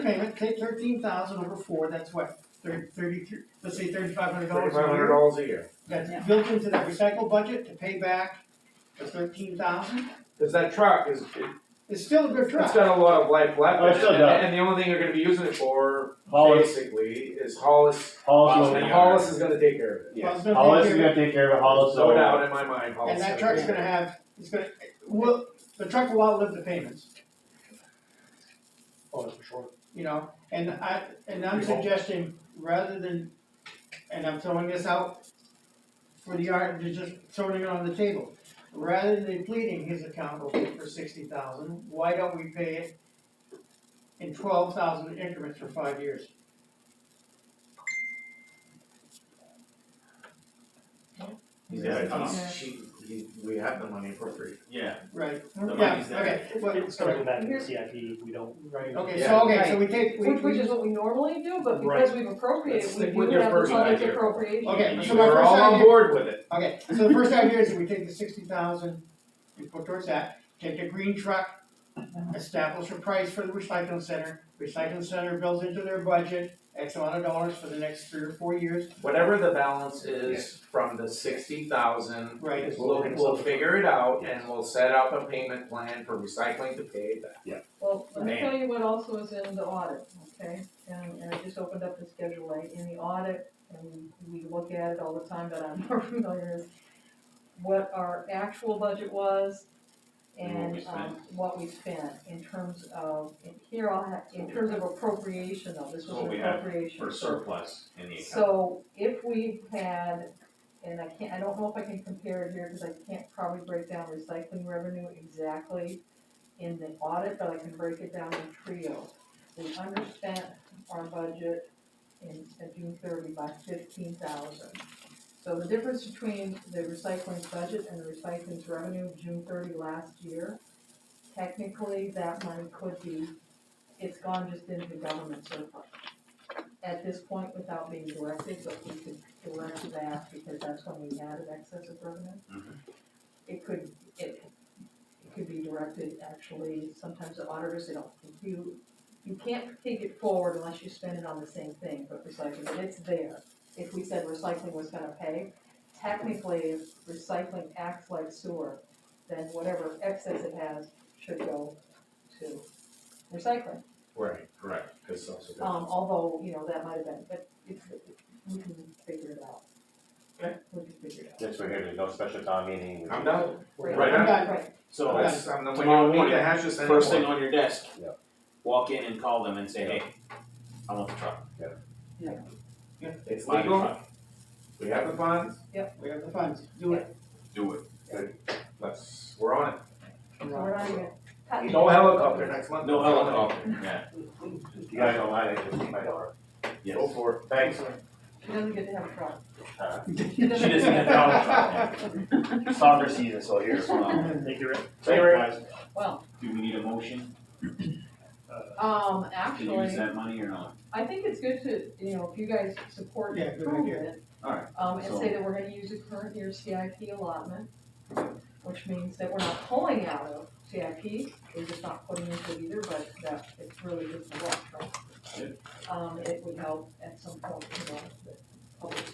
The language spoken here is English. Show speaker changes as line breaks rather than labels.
payment, take thirteen thousand over four, that's what, thirty, thirty-three, let's say thirty-five hundred dollars a
Thirty-five hundred
year.
dollars a year.
That's built into the recycle budget to pay back the thirteen thousand,
Cause that truck is, it-
it's still a good
it's
truck.
got a lot of life left
Oh, it
in it,
still
and,
does.
and the only thing you're gonna be using it for,
Hollis,
basically, is Hollis,
Hollis,
and
will-
Hollis is gonna take care of it.
Well, it's gonna
Hollis
take
is
care
gonna take care of it, Hollis
No
will,
doubt in my mind,
of-
Hollis.
And that
is
truck's
take
gonna
care of
have, it's gonna, will, the truck will outlive the payments,
Oh, that's for sure.
you know, and I, and I'm
We hope.
suggesting, rather than, and I'm throwing this out for the art, you're just throwing it on the table. Rather than depleting his account for sixty thousand, why don't we pay it in twelve thousand increments for five years?
it.
Yeah,
Yeah.
it's- she, he- we have the money appropriate.
yeah,
Right,
The
yeah,
money's there.
okay, well,
It's gonna come back in CIP, we don't,
right,
Okay.
okay, so, okay, so we take, we,
Which, which
we,
is what we normally do, but
Right.
because we've appropriated,
Let's
we
stick with
do
your
have the
first
public
idea.
appropriation.
okay,
You
so my
were
first
all
idea.
on board with it.
Okay, so the first idea is that we take the sixty thousand and put towards that, take the green truck, establish a price for the recycling center. Recycling center builds into their budget X amount of dollars for the next three or four years,
Whatever the balance is from the sixty thousand,
right?
we'll, we'll figure it out and we'll set up a payment plan for recycling to pay that.
Well, let me
Man.
tell you what also is in the audit, okay? And, and I just opened up the Schedule A, in the audit, and we look at it all the time, but I'm more familiar with what our actual budget was
And what we
and, um, what we spent in terms of, in here, I'll have, in
So-
terms of appropriation though, this was
What
an
we had
appropriation.
For
so-
surplus in the account.
So if we had, and I can't, I don't know if I can compare it here, because I can't probably break down recycling revenue exactly in the audit, but I can break it down in trio. We underspent our budget in, at June thirty by fifteen thousand. So the difference between the recycling budget and the recycling's revenue of June thirty last year, technically, that money could be, it's gone just into government surplus at this point without being directed, but we could direct that because that's when we had an excess of revenue.
Mhm.
It could, it, it could be directed, actually, sometimes the auditors, they don't, you, you can't take it forward unless you spend it on the same thing, but recycling, but it's there. If we said recycling was gonna pay, technically, if recycling acts like sewer, then whatever excess it has should go to recycling.
Right, correct, cause so, so.
Um, although, you know, that might have been, but it's, we can figure it out.
Okay.
We can figure it out.
Since we're here, there's no special town meeting. we
I'm
just-
done.
Right.
Right on.
Right,
So
so,
that's, I'm the one
Tomorrow
you want to
meeting,
hash this anymore.
first thing on your desk.
Yeah.
Walk in and call them and say, hey, I want the truck,
It's
buy the
legal,
truck,
we have the funds,
We have the funds, do it.
do it.
let's, we're on
so we're not even
it.
cutting.
No helicopter next month.
No helicopter, yeah,
If you guys don't mind, I can leave my door.
yes.
Oh.
Go for it.
Thanks.
She doesn't get to have a truck.
Uh,
She doesn't get the helicopter.
Soccer season, so here's one.
thank you, Rick.
Thank you, Rick.
Guys,
Well,
Do we need a motion
um,
to use
actually,
that money or not?
I think it's good to, you know, if you guys support
Yeah,
and
good
approve
idea.
it.
Alright,
Um, and
so-
say that we're gonna use the current year CIP allotment, which means that we're not pulling out of CIP, we're just not putting into it either, but that, it's really good for us, right? Um, it would help at some point, you know, the public